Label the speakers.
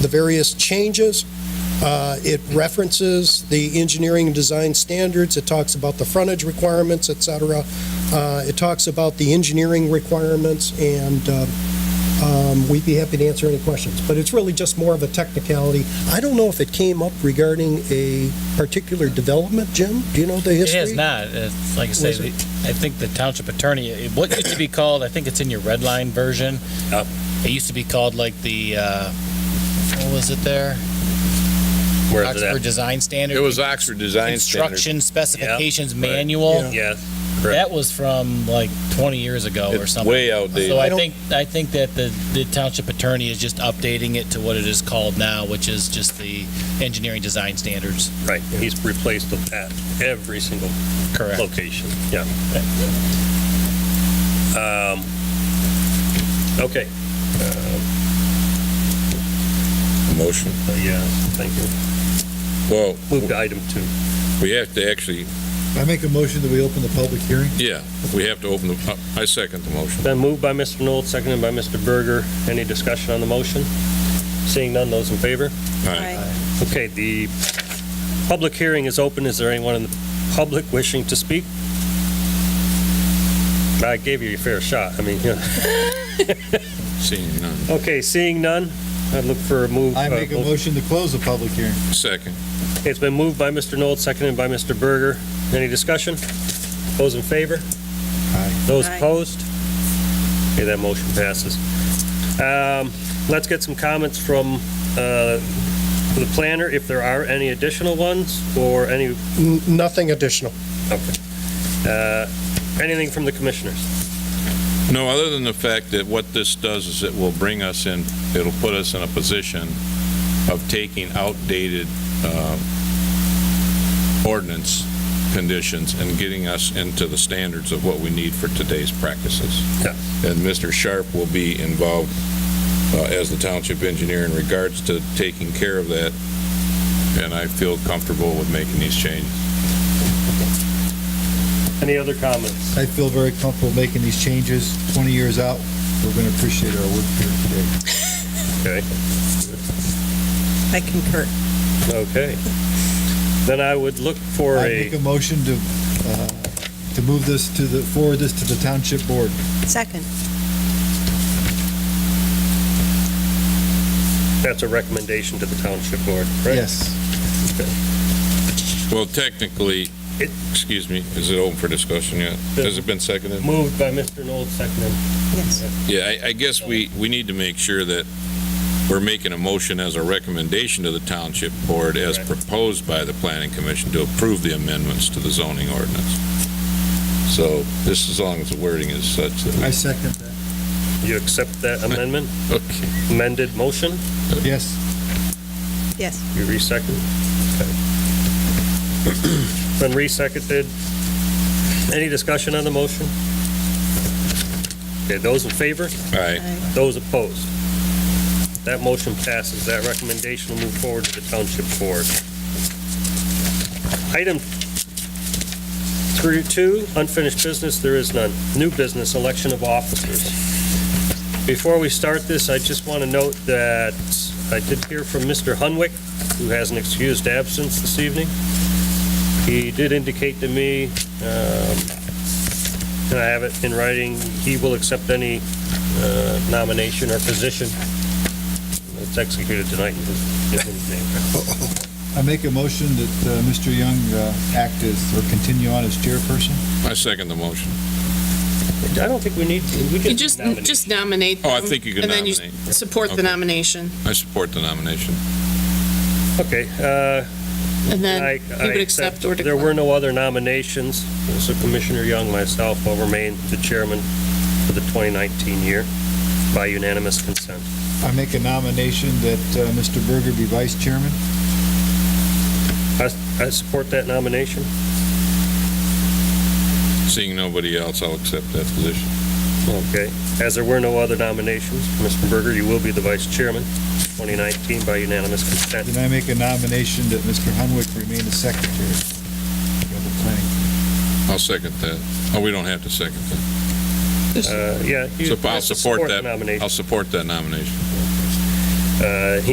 Speaker 1: the various changes. Uh, It references the engineering and design standards, it talks about the frontage requirements, et cetera. Uh, It talks about the engineering requirements, and uh, um, we'd be happy to answer any questions. But it's really just more of a technicality. I don't know if it came up regarding a particular development, Jim? Do you know the
Speaker 2: It
Speaker 1: history?
Speaker 2: has not. It's, like I say,
Speaker 1: Was it-
Speaker 2: the- I think the township attorney, it- what used to be called, I think it's in your red line version.
Speaker 3: Yep.
Speaker 2: It used to be called like the, uh, what was it there?
Speaker 3: Where is it
Speaker 2: Oxford
Speaker 3: at?
Speaker 2: Design Standard.
Speaker 4: It was Oxford Design Standards.
Speaker 2: Construction Specifications
Speaker 3: right.
Speaker 2: Manual.
Speaker 3: Yes, correct.
Speaker 2: That was from like 20 years ago or
Speaker 4: It's
Speaker 2: something.
Speaker 4: way outdated.
Speaker 2: So
Speaker 1: I
Speaker 2: I
Speaker 1: don't-
Speaker 2: think, I think that the, the township attorney is just updating it to what it is called now, which is just the engineering design standards.
Speaker 3: right. He's replaced the at every single
Speaker 2: Correct.
Speaker 3: location, yeah. Um, Okay,
Speaker 5: Motion.
Speaker 3: Uh, yeah, thank you.
Speaker 5: Well,
Speaker 3: Move to item two.
Speaker 5: we have to actually,
Speaker 6: I make a motion that we open the public hearing.
Speaker 5: yeah, we have to open the, I second the motion.
Speaker 3: Been moved by Mr. Knoll, seconded by Mr. Berger. Any discussion on the motion? Seeing none, those in favor? Okay, the public hearing is open. Is there anyone in the public wishing to speak? I gave you your fair shot. I mean, yeah.
Speaker 5: Seeing none.
Speaker 3: Okay, seeing none, I'd look for a move.
Speaker 6: I
Speaker 3: uh,
Speaker 6: make a motion to close the public hearing.
Speaker 5: Second.
Speaker 3: It's been moved by Mr. Knoll, seconded by Mr. Berger. Any discussion? Those in favor?
Speaker 6: Aye.
Speaker 3: Those
Speaker 7: Aye.
Speaker 3: opposed? Okay, that motion passes. Um, Let's get some comments from uh, the planner, if there are any additional ones, or any,
Speaker 1: N- Nothing additional.
Speaker 3: uh, anything from the commissioners.
Speaker 5: No, other than the fact that what this does is it will bring us in, it'll put us in a position of taking outdated uh, ordinance conditions and getting us into the standards of what we need for today's practices.
Speaker 3: Yeah.
Speaker 5: And Mr. Sharp will be involved uh, as the township engineer in regards to taking care of that, and I feel comfortable with making these changes.
Speaker 3: Any other comments?
Speaker 6: I feel very comfortable making these changes. 20 years out, we're going to appreciate our work here today.
Speaker 3: Okay.
Speaker 7: I concur.
Speaker 3: Okay. Then I would look for
Speaker 6: I
Speaker 3: a,
Speaker 6: make a motion to, uh, to move this to the, forward this to the township board.
Speaker 7: Second.
Speaker 3: that's a recommendation to the township board, right?
Speaker 6: Yes.
Speaker 5: Well, technically,
Speaker 3: It-
Speaker 5: excuse me, is it open for discussion yet? Has it been seconded?
Speaker 3: Moved by Mr. Knoll, seconded
Speaker 7: Yes.
Speaker 5: Yeah, I, I guess we, we need to make sure that we're making a motion as a recommendation to the township board as
Speaker 3: Right.
Speaker 5: proposed by the planning commission to approve the amendments to the zoning ordinance. So this, as long as the wording is such
Speaker 6: I
Speaker 5: that
Speaker 6: second that.
Speaker 3: You accept that amendment,
Speaker 5: we, okay.
Speaker 3: amended motion?
Speaker 6: Yes.
Speaker 7: Yes.
Speaker 3: You resecond? Okay. Been reseconded. Any discussion on the motion? Okay, those in favor?
Speaker 5: All right.
Speaker 7: Aye.
Speaker 3: Those opposed? That motion passes. That recommendation will move forward to the township board. Item through two, unfinished business, there is none. New business, election of officers. Before we start this, I just want to note that I did hear from Mr. Hunwick, who has an excused absence this evening. He did indicate to me, um, and I have it in writing, he will accept any uh, nomination or position. It's executed tonight.
Speaker 6: I make a motion that uh, Mr. Young uh, act as, or continue on as chairperson.
Speaker 5: I second the motion.
Speaker 3: I don't think we need, we
Speaker 8: You
Speaker 3: can just
Speaker 8: just,
Speaker 3: nominate.
Speaker 8: just nominate
Speaker 5: Oh, I
Speaker 8: them,
Speaker 5: think you can
Speaker 8: And then you
Speaker 5: nominate.
Speaker 8: support
Speaker 5: Okay.
Speaker 8: the nomination,
Speaker 5: I support the nomination.
Speaker 3: Okay, uh,
Speaker 8: and
Speaker 3: I
Speaker 8: then you
Speaker 3: I
Speaker 8: would accept or
Speaker 3: There were
Speaker 8: decline.
Speaker 3: no other nominations, so Commissioner Young, myself, will remain the chairman for the 2019 year by unanimous consent.
Speaker 6: I make a nomination that uh, Mr. Berger be vice chairman.
Speaker 3: I I support that nomination.
Speaker 5: Seeing nobody else, I'll accept that position.
Speaker 3: Okay. As there were no other nominations, Mr. Berger, you will be the vice chairman, 2019 by unanimous consent.
Speaker 6: Then I make a nomination that Mr. Hunwick remain the secretary of the planning
Speaker 5: I'll second that. Oh, we don't have to second that.
Speaker 3: Uh, Yeah. you
Speaker 5: So I'll
Speaker 3: have to
Speaker 5: support
Speaker 3: the
Speaker 5: that.
Speaker 3: Nomination.
Speaker 5: I'll support that nomination.
Speaker 3: Uh, He